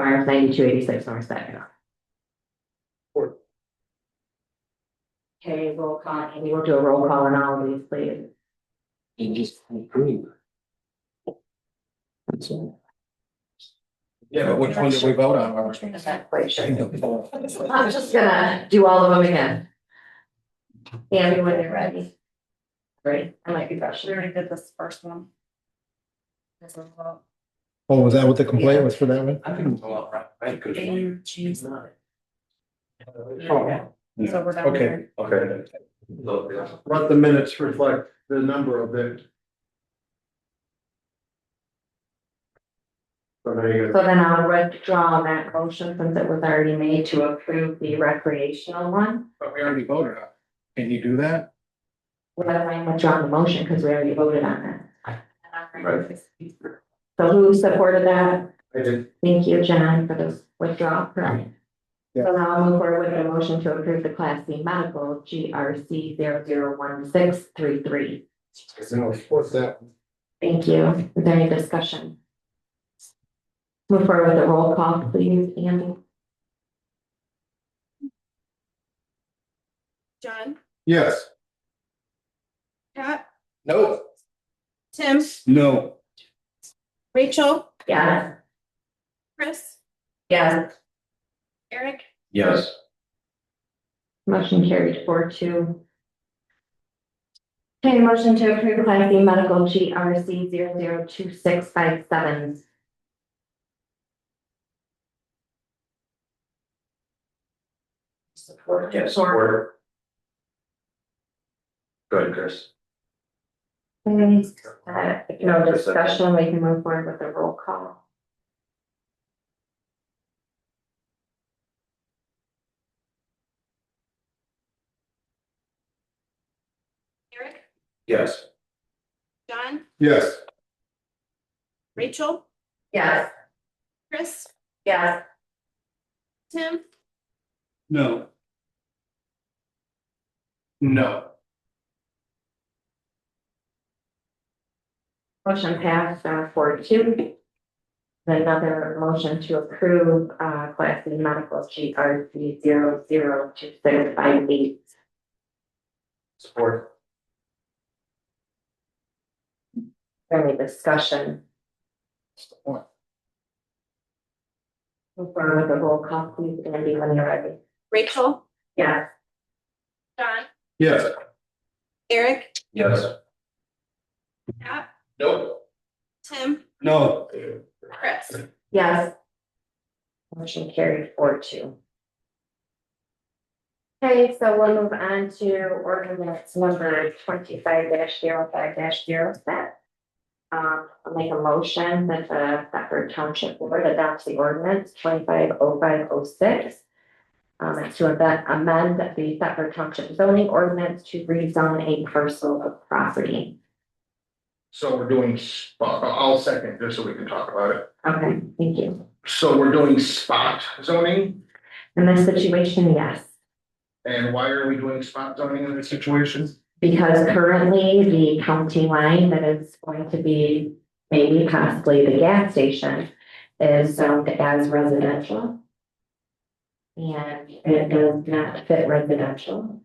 RF ninety-two eighty-six North Avenue. Four. Okay, roll call, and we'll do a roll call on all of these, please. and just improve. That's all. Yeah, but which one did we vote on, Robert? I'm not quite sure. I'm just gonna do all of them again. Andy, when you're ready. Great, I might be We rushing. already did this first one. This is what- Oh, was that what the complaint was for that one? I think it's Oh, all right, right, good. And geez, So Oh, we're down Okay. here. Okay. Let the minutes reflect the number of it. So there you So then I'll withdraw that motion since it was already made to approve the recreational one. But we already voted on. it. Can you do that? Well, I withdraw the motion because we already voted on that. So who supported that? I did. Thank you, John, for this withdrawal. Correct. Yeah. So now I'll move forward with a motion to approve the Class C medical GRC zero zero one six three three. Cause then it was that. Thank you. Is there any discussion? Move forward with a roll call, please, Andy. John, Yes. Pat, No. Tim, No. Rachel, Yes. Chris, Yes. Eric, Yes, Motion carried four two. Okay, motion to approve Class B medical GRC zero zero two six five seven. Support. yes, or. Go ahead, Chris. Okay, uh, No discussion, we can move forward with the roll call. Eric, Yes. John, Yes. Rachel, Yes. Chris, Yes. Tim, No. No. Motion passed, uh, four two. Then Another motion to approve, uh, class B medical G R C zero zero two six five eight. Support. Any discussion? Move forward with the roll call, please, Andy, when you're ready. Rachel, Yes. John, Yes. Eric, Yes. Pat, No. Tim, No. Chris. Yes. Motion carried four two. Okay, so we'll move on to ordinance number twenty-five 5 7 Um, I'll make a motion that the Thetford Township Board adopts the ordinance twenty-five oh five oh six. Um, it's to amend, amend the Thetford Township zoning ordinance to rezone a parcel of property. So we're doing, spot. I'll second this so we can talk about it. Okay, thank you. So we're doing spot zoning, In this situation, yes. and why are we doing spot zoning in this situation? Because currently the county line that is going to be maybe possibly the gas station is zoned as residential. And it does not fit residential.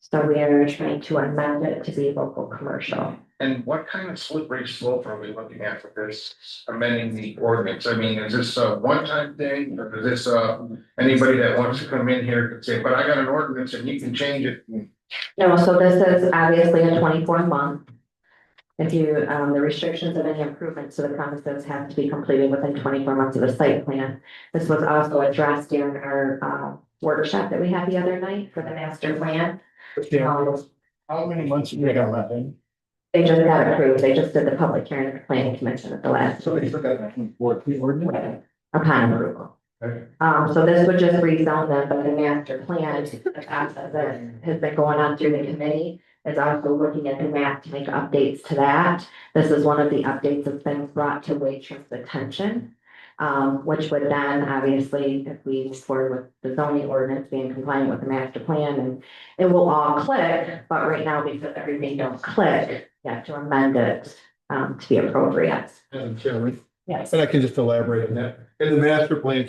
So we are trying to amend it to be local commercial. And what kind of slippery slope are we looking at with this amending the ordinance? I mean, is this a one-time thing, or is this, uh, anybody that wants to come in here could say, but I got an ordinance and you can change it? No, so this is obviously a twenty-four month. If you, um, the restrictions of any improvements to the premises have to be completed within twenty-four months of the site plan. This was also addressed during our, uh, workshop that we had the other night for the master plan. Um, How many months have you got left in? They just got approved, they just did the public hearing at the planning commission at the last So they forgot. Fourteen ordinance? upon approval. Okay. Um, so this would just rezone them, but the master plan, the process that has been going on through the committee is also looking at the map to make updates to that. This is one of the updates that's been brought to Waitre's attention. Um, which would then obviously, if we move forward with the zoning ordinance being compliant with the master plan and it will all click, but right now because everything don't click, you have to amend it um, to be appropriate. Madam Chairman, Yes. and I can just elaborate on that. In the master plan